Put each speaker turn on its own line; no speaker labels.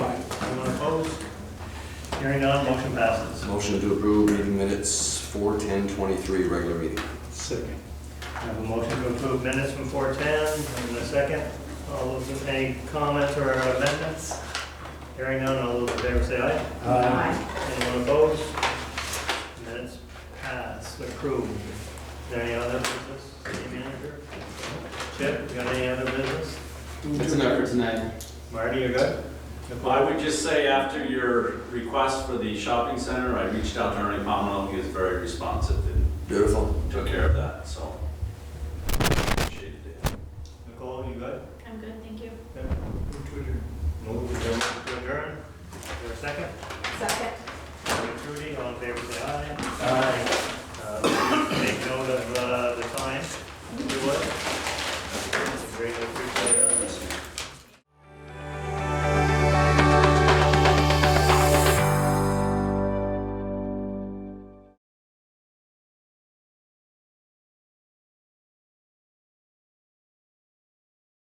Opposed? Hearing none, motion passes.
Motion to approve meeting minutes four ten twenty-three, regular meeting.
Second.
I have a motion to approve minutes from 4:10, and a second. All those, with any comments or amendments? Hearing none, all those in favor say aye. Anyone opposed? Minutes passed, approved. Is there any other business, city manager? Chip, you got any other business?
That's enough for tonight.
Marty, you're good?
Well, I would just say after your request for the shopping center, I reached out to Ernie Pommel, he was very responsive and
Beautiful.
took care of that, so. Appreciated it.
Nicole, you good?
I'm good, thank you.
Move to adjourn. Move to adjourn. Is there a second? Uh,